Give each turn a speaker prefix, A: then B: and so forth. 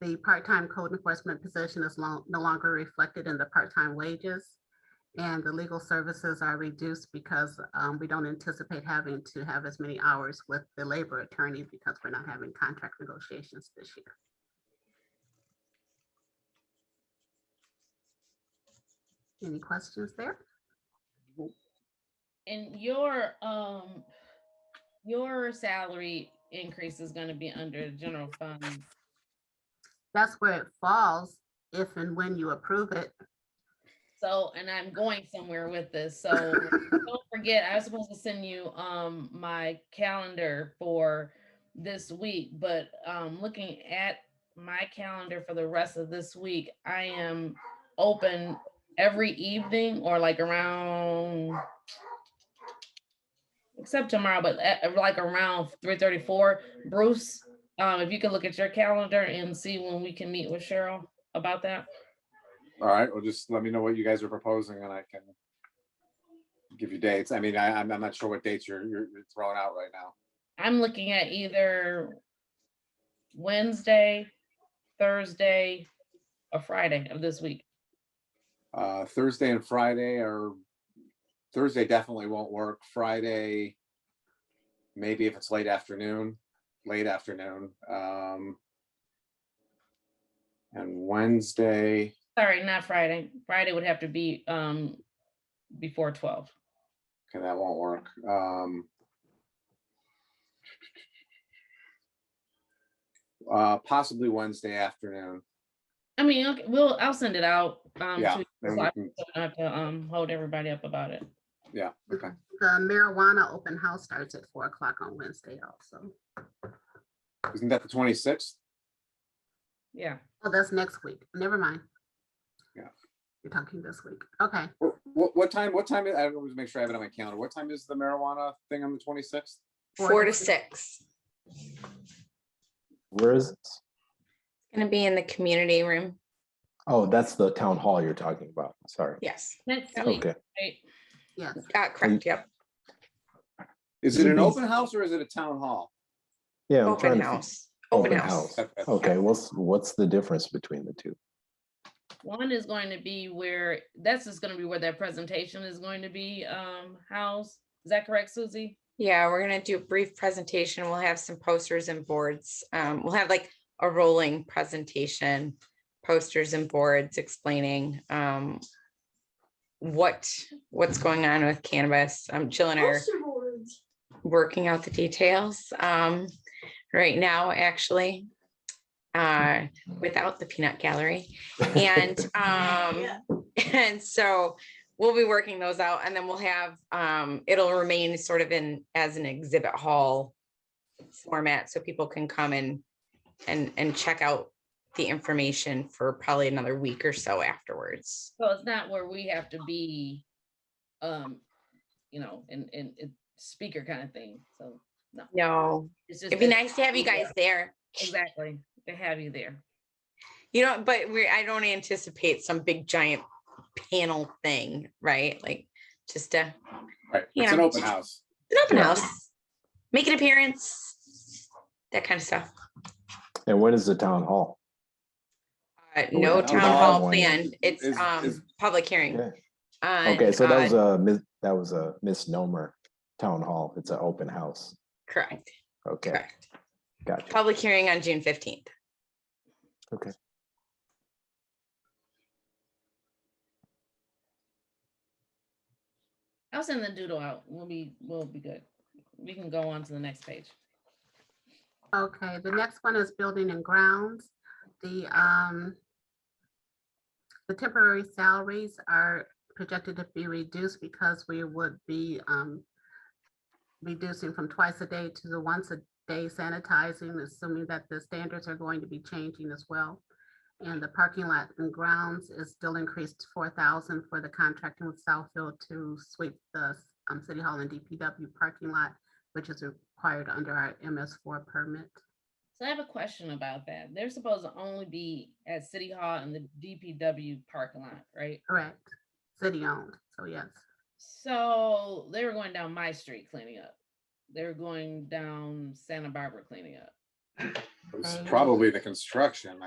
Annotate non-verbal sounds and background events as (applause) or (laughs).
A: the part-time code enforcement position is lo- no longer reflected in the part-time wages. And the legal services are reduced because um, we don't anticipate having to have as many hours with the labor attorney because we're not having contract negotiations this year. Any questions there?
B: And your, um, your salary increase is gonna be under general fund.
A: That's where it falls if and when you approve it.
B: So, and I'm going somewhere with this, so don't forget, I was supposed to send you, um, my calendar for this week, but, um, looking at my calendar for the rest of this week, I am open every evening or like around except tomorrow, but a- like around three thirty-four. Bruce, um, if you can look at your calendar and see when we can meet with Cheryl about that.
C: All right, well, just let me know what you guys are proposing and I can give you dates. I mean, I, I'm, I'm not sure what dates you're, you're you're throwing out right now.
B: I'm looking at either Wednesday, Thursday, or Friday of this week.
C: Uh, Thursday and Friday are, Thursday definitely won't work. Friday, maybe if it's late afternoon, late afternoon. Um And Wednesday,
B: Sorry, not Friday. Friday would have to be um before twelve.
C: okay, that won't work. Um uh Possibly Wednesday afternoon.
B: I mean, okay, we'll, I'll send it out. um,
C: Yeah,
B: to-
C: then
B: so
C: we
B: I
C: can-
B: don't have to, Um, hold everybody up about it.
C: Yeah, okay.
A: The marijuana open house starts at four o'clock on Wednesday also.
C: Mm, Isn't that the twenty-sixth?
B: Yeah,
A: Oh, that's next week. Never mind.
C: Yeah.
A: You're talking this week. Okay.
C: What, what time, what time, is- I always make sure I have it on my calendar. What time is the marijuana thing on the twenty-sixth?
D: Four to six.
E: Where is this?
D: Gonna be in the community room.
E: Oh, that's the town hall you're talking about. Sorry.
D: Yes.
B: next
D: Yeah.
B: week,
E: Okay.
B: right?
A: Yes,
D: Uh, correct. Yep.
C: Is it an
E: Mhm.
C: open house or is it a town hall?
E: Yeah. I'm trying
D: Open
E: to fi-
D: house. Open house.
C: Okay.
E: Okay. What's, what's the difference between the two?
B: One is going to be where, that's just gonna be where that presentation is going to be, um, housed. Is that correct, Susie?
D: Yeah, we're gonna do a brief presentation. We'll have some posters and boards. Um, we'll have like a rolling presentation, posters and boards explaining um what what's going on with cannabis. Um, Jill and I are working out the details um right now, actually. Uh, without the peanut gallery. And um, (laughs) and so we'll be working those out and then we'll have, um, it'll remain sort of in, as an exhibit hall format, so people can come and, and, and check out the information for probably another week or so afterwards.
B: So it's not where we have to be, um, you know, and, and it speaker kind of thing, so
D: No,
B: it's just.
D: it'd be
B: that-
D: nice to have you guys there.
B: Exactly, to have you there.
D: You know, but we, I don't anticipate some big giant panel thing, right? Like just uh, a,
C: Right, it's an
D: Yeah.
C: open house.
D: an open
E: Yeah.
D: house, make an appearance, that kind of stuff.
E: And when is the town hall?
D: Uh,
E: we
D: no
E: have
D: town
E: another
D: hall
E: one.
D: planned, it's,
C: Is- is-
D: um, public hearing.
E: Yeah.
D: on,
E: Okay. So that was
D: uh,
E: a, mis- that was a misnomer. Town hall. It's an open house.
D: Correct,
E: Okay.
D: correct.
E: Gotcha.
D: Public hearing on June fifteenth.
B: I'll send the doodle out, we'll be, we'll be good. We can go on to the next page.
A: okay. The next one is building and grounds. The, um, the temporary salaries are projected to be reduced because we would be, um, reducing from twice a day to the once a day sanitizing, assuming that the standards are going to be changing as well. And the parking lot and grounds is still increased four thousand for the contracting with Southfield to sweep the, um, City Hall and DPW parking lot, which is required under our MS four permit.
B: So I have a question about that. They're supposed to only be at City Hall and the DPW parking lot, right?
A: Correct. City owned, so yes.
B: So they were going down my street cleaning up. They were going down Santa Barbara cleaning up.
C: It was
A: Okay.
C: probably the construction.